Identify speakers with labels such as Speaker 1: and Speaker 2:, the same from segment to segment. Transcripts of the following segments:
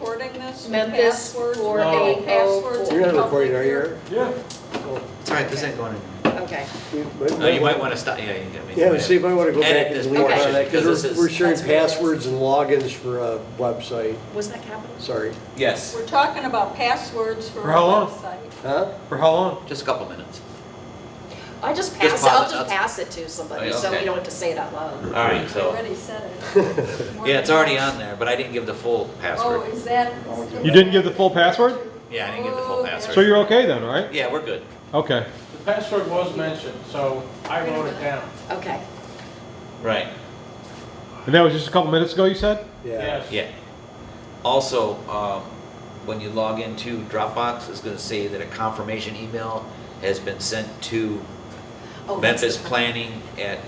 Speaker 1: Memphis.
Speaker 2: Memphis
Speaker 1: passwords,
Speaker 2: four
Speaker 1: all
Speaker 2: eight oh
Speaker 1: passwords
Speaker 2: four.
Speaker 3: You're
Speaker 1: and
Speaker 3: not recording, are
Speaker 1: public
Speaker 3: you?
Speaker 4: Yeah.
Speaker 5: It's all right, this ain't going in.
Speaker 2: Okay,
Speaker 5: No, you might wanna stop, yeah, you got me.
Speaker 3: Yeah, but see, you might want to go
Speaker 5: Edit
Speaker 3: back and
Speaker 5: this
Speaker 3: delete
Speaker 2: portion,
Speaker 3: all that,
Speaker 5: because
Speaker 3: because
Speaker 5: this
Speaker 3: we're,
Speaker 5: is-
Speaker 3: we're sharing
Speaker 2: That's what it is.
Speaker 3: passwords and logins for a website,
Speaker 2: was that capital?
Speaker 3: sorry.
Speaker 5: Yes,
Speaker 1: We're talking about passwords for
Speaker 4: For
Speaker 1: our
Speaker 4: how long?
Speaker 1: website.
Speaker 3: Huh?
Speaker 4: For how long?
Speaker 5: just a couple minutes.
Speaker 2: I just pass,
Speaker 5: Just
Speaker 2: it- I'll
Speaker 5: pause it,
Speaker 2: just
Speaker 5: that's-
Speaker 2: pass it to somebody,
Speaker 5: Oh, yeah,
Speaker 2: so we
Speaker 5: okay.
Speaker 2: don't have to say it out loud.
Speaker 5: All right,
Speaker 1: I
Speaker 5: so,
Speaker 1: already said it.
Speaker 5: yeah, it's already on there, but I didn't give the full
Speaker 1: Oh,
Speaker 5: password.
Speaker 1: is that? Oh,
Speaker 4: You didn't give the full password?
Speaker 5: Yeah, I didn't give the full
Speaker 1: Okay.
Speaker 5: password.
Speaker 4: So you're okay then, right?
Speaker 5: Yeah, we're good.
Speaker 4: Okay.
Speaker 6: The password was mentioned, so I wrote it down.
Speaker 2: Okay,
Speaker 5: Right,
Speaker 4: And that was just a couple minutes ago, you said?
Speaker 3: Yeah.
Speaker 6: Yes.
Speaker 5: yeah. Also, um, when you log into Dropbox, it's gonna say that a confirmation email has been sent to
Speaker 2: oh, that's,
Speaker 5: Memphis Planning at,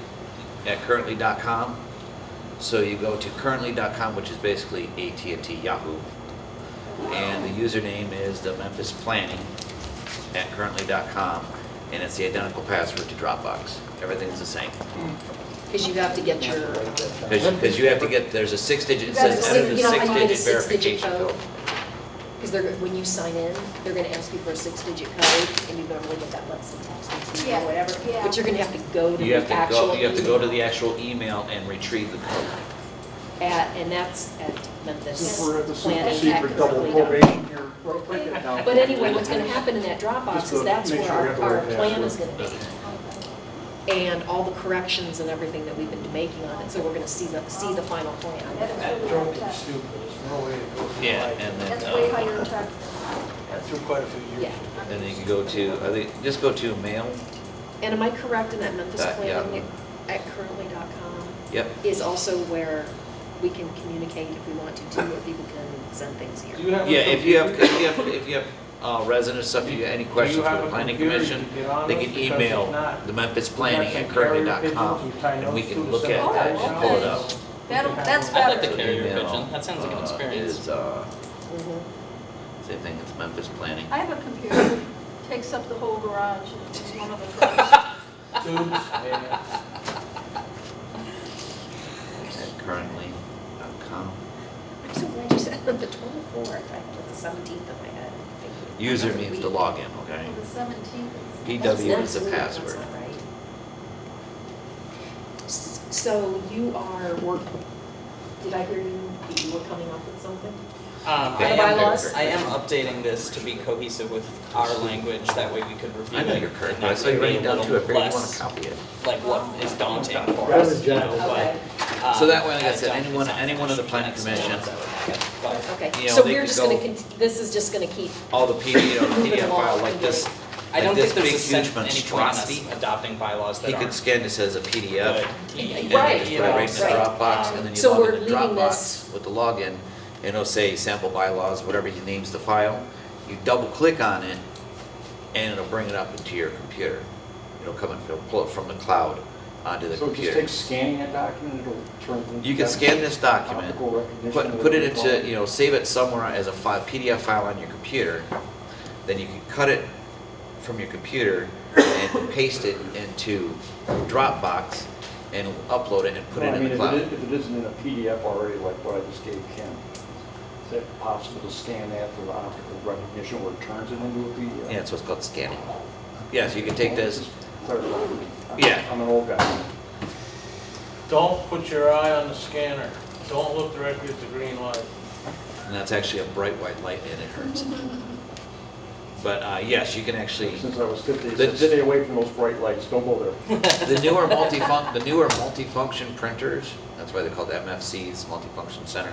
Speaker 5: at currently.com. So you go to currently.com, which is basically AT&T Yahoo. And the username is the Memphis Planning at currently.com. And it's the identical password to Dropbox. Everything's the same.
Speaker 2: because you have to get your,
Speaker 5: Because you have to get, there's a six-digit, it
Speaker 2: You gotta
Speaker 5: says
Speaker 2: see-
Speaker 5: enter the
Speaker 2: you know, I need a
Speaker 5: six-digit
Speaker 2: six-digit
Speaker 5: verification
Speaker 2: code.
Speaker 5: code.
Speaker 2: because they're, when you sign in, they're gonna ask you for a six-digit code, and you normally get that once in text,
Speaker 1: Yeah,
Speaker 2: or whatever.
Speaker 1: yeah.
Speaker 2: But you're gonna have to go to
Speaker 5: You have
Speaker 2: the
Speaker 5: to go,
Speaker 2: actual
Speaker 5: you have to go to
Speaker 2: email
Speaker 5: the actual email and retrieve the code.
Speaker 2: at, and that's at Memphis
Speaker 7: We're at the super
Speaker 2: Planning at
Speaker 7: secret double
Speaker 2: currently dot com.
Speaker 7: probation here. Well, wait, now-
Speaker 2: But anyway, what's gonna happen in that Dropbox
Speaker 7: Just
Speaker 2: is
Speaker 7: to
Speaker 2: that's
Speaker 7: make
Speaker 2: where
Speaker 7: sure we
Speaker 2: our,
Speaker 7: have the
Speaker 2: our
Speaker 7: right
Speaker 2: plan
Speaker 7: password.
Speaker 2: is gonna be. And all the corrections and everything that we've been making on it, so we're gonna see the, see the final plan.
Speaker 1: That's
Speaker 6: That
Speaker 1: really
Speaker 6: drove
Speaker 1: hard
Speaker 6: me
Speaker 1: tech.
Speaker 6: stupid. There's no way to go through
Speaker 5: Yeah,
Speaker 6: life.
Speaker 5: and then.
Speaker 1: That's
Speaker 5: uh,
Speaker 1: way higher tech.
Speaker 6: That through quite a few
Speaker 2: Yeah,
Speaker 6: years.
Speaker 5: And then you can go to, I think, just go to mail.
Speaker 2: and am I correct in that Memphis
Speaker 5: That- yeah.
Speaker 2: Planning at currently.com
Speaker 5: Yep,
Speaker 2: is also where we can communicate if we want to, too, where people can send things
Speaker 6: Do
Speaker 2: here?
Speaker 6: you have a
Speaker 5: Yeah, if you have,
Speaker 6: computer?
Speaker 5: if you have, if you have uh, residents, stuff, you got any
Speaker 6: Do you
Speaker 5: questions
Speaker 6: have
Speaker 5: for the
Speaker 6: a
Speaker 5: planning
Speaker 6: computer you
Speaker 5: commission,
Speaker 6: can get on
Speaker 5: they
Speaker 6: with?
Speaker 5: can
Speaker 6: Because if
Speaker 5: email
Speaker 6: not,
Speaker 5: the Memphis
Speaker 6: we
Speaker 5: planning
Speaker 6: got
Speaker 5: at
Speaker 6: some carrier
Speaker 5: currently.com
Speaker 6: pigeons, we tie
Speaker 5: and we
Speaker 6: those
Speaker 5: can
Speaker 6: to
Speaker 5: look at that
Speaker 6: the
Speaker 1: cell
Speaker 5: and
Speaker 1: phone.
Speaker 5: pull it
Speaker 1: Okay.
Speaker 5: up.
Speaker 1: That'll, that's
Speaker 6: I
Speaker 1: better.
Speaker 6: like
Speaker 5: So
Speaker 6: the
Speaker 8: carrier
Speaker 5: email,
Speaker 8: pigeon. That sounds like an
Speaker 5: uh,
Speaker 8: experience.
Speaker 5: Is, uh,
Speaker 2: Mhm.
Speaker 5: same thing, it's Memphis planning.
Speaker 1: I have a computer, takes up the whole garage, and it's one of the first.
Speaker 6: Tubes and-
Speaker 5: at currently.com.
Speaker 2: I'm so glad you said the twenty-fourth, I put the seventeenth in my head. Thank you.
Speaker 5: User
Speaker 2: That's a
Speaker 5: means the
Speaker 2: week.
Speaker 5: login, okay?
Speaker 1: The seventeenth.
Speaker 2: That's
Speaker 5: PW is
Speaker 2: next
Speaker 5: the
Speaker 2: week, that's
Speaker 5: password.
Speaker 2: not right. S- So you are work, did I hear you, that you were coming up with something?
Speaker 8: Um,
Speaker 5: Okay.
Speaker 8: I
Speaker 2: The
Speaker 8: am,
Speaker 2: bylaws?
Speaker 8: I am updating this to be cohesive with our language, that way we could review
Speaker 5: I
Speaker 8: it.
Speaker 5: know you're current,
Speaker 8: and
Speaker 5: but I
Speaker 8: not
Speaker 5: saw you
Speaker 8: be a
Speaker 5: writing down
Speaker 8: little
Speaker 5: to it, if you want
Speaker 8: less,
Speaker 5: to copy it.
Speaker 8: Like what is daunting for
Speaker 3: Rather
Speaker 8: us, you know,
Speaker 3: general.
Speaker 2: Okay,
Speaker 8: but, um,
Speaker 5: So that way, like I
Speaker 8: as
Speaker 5: said,
Speaker 8: daunting
Speaker 5: anyone-
Speaker 8: as I
Speaker 5: anyone on the
Speaker 8: should,
Speaker 5: planning
Speaker 8: that's the
Speaker 5: commission-
Speaker 8: ones I would look at, but-
Speaker 2: okay,
Speaker 5: You know,
Speaker 2: so
Speaker 5: they
Speaker 2: we're
Speaker 5: could
Speaker 2: just gonna,
Speaker 5: go-
Speaker 2: cont- this is just gonna keep,
Speaker 5: All the PDF, you know, the
Speaker 2: Look at
Speaker 5: PDF
Speaker 2: them all.
Speaker 5: file like this,
Speaker 8: I
Speaker 5: like
Speaker 8: don't
Speaker 5: this
Speaker 8: think
Speaker 5: big
Speaker 8: there's a
Speaker 5: huge
Speaker 8: sense any point in us
Speaker 5: monstrosity.
Speaker 8: adopting bylaws
Speaker 5: He
Speaker 8: that
Speaker 5: could
Speaker 8: aren't
Speaker 5: scan this as a
Speaker 8: good.
Speaker 5: PDF
Speaker 2: Right,
Speaker 5: And then just put it right in the
Speaker 2: right.
Speaker 5: Dropbox, and then you
Speaker 2: So
Speaker 5: log
Speaker 2: we're
Speaker 5: into
Speaker 2: leaving this-
Speaker 5: Dropbox with the login, and it'll say sample bylaws, whatever he names the file. You double click on it, and it'll bring it up into your computer. It'll come and it'll pull it from the cloud onto the
Speaker 7: So it just takes
Speaker 5: computer.
Speaker 7: scanning a document, it'll turn. it into
Speaker 5: You can scan this document,
Speaker 7: optical recognition,
Speaker 5: put, put it
Speaker 7: whatever it's
Speaker 5: into,
Speaker 7: called.
Speaker 5: you know, save it somewhere as a file, PDF file on your computer. Then you can cut it from your computer and paste it into Dropbox and upload it and put
Speaker 7: No,
Speaker 5: it
Speaker 7: I
Speaker 5: in
Speaker 7: mean,
Speaker 5: the
Speaker 7: if
Speaker 5: cloud.
Speaker 7: it is- If it isn't in a PDF already, like what I just gave Ken, is it possible to scan that for optical recognition where it turns it into a PDF?
Speaker 5: Yeah, that's what's called scanning. Yeah, so you can take this,
Speaker 7: Clarify.
Speaker 5: Yeah.
Speaker 7: I'm an old guy.
Speaker 6: Don't put your eye on the scanner. Don't look directly at the green light.
Speaker 5: and that's actually a bright white light and it hurts. But uh, yes, you can actually,
Speaker 7: Since I was 50, it
Speaker 5: The-
Speaker 7: said,
Speaker 5: the-
Speaker 7: stay away from those bright lights, don't go there.
Speaker 5: the newer multifunc, the newer multifunction printers, that's why they're called MFCs, multifunction center.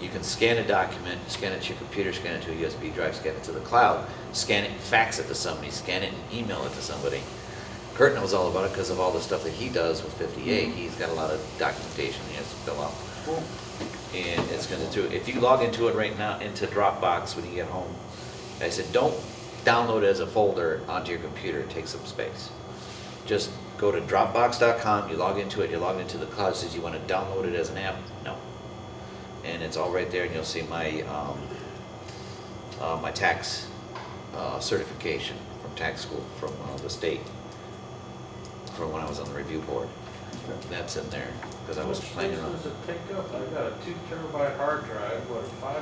Speaker 5: You can scan a document, scan it to your computer, scan it to a USB drive, scan it to the cloud, scan it, fax it to somebody, scan it and email it to somebody. Kurt knows all about it because of all the stuff that he does with 58. He's got a lot of documentation he has to fill out. And it's gonna do, if you log into it right now, into Dropbox when you get home, I said, don't download it as a folder onto your computer, it takes up space. Just go to dropbox.com, you log into it, you log into the cloud, it says you wanna download it as an app, no. And it's all right there and you'll see my, um, uh, my tax, uh, certification from tax school, from, uh, the state, from when I was on the review board. That's in there, cause I was
Speaker 6: Which
Speaker 5: planning on.
Speaker 6: places does it pick up? I've got a two terabyte hard drive, what, five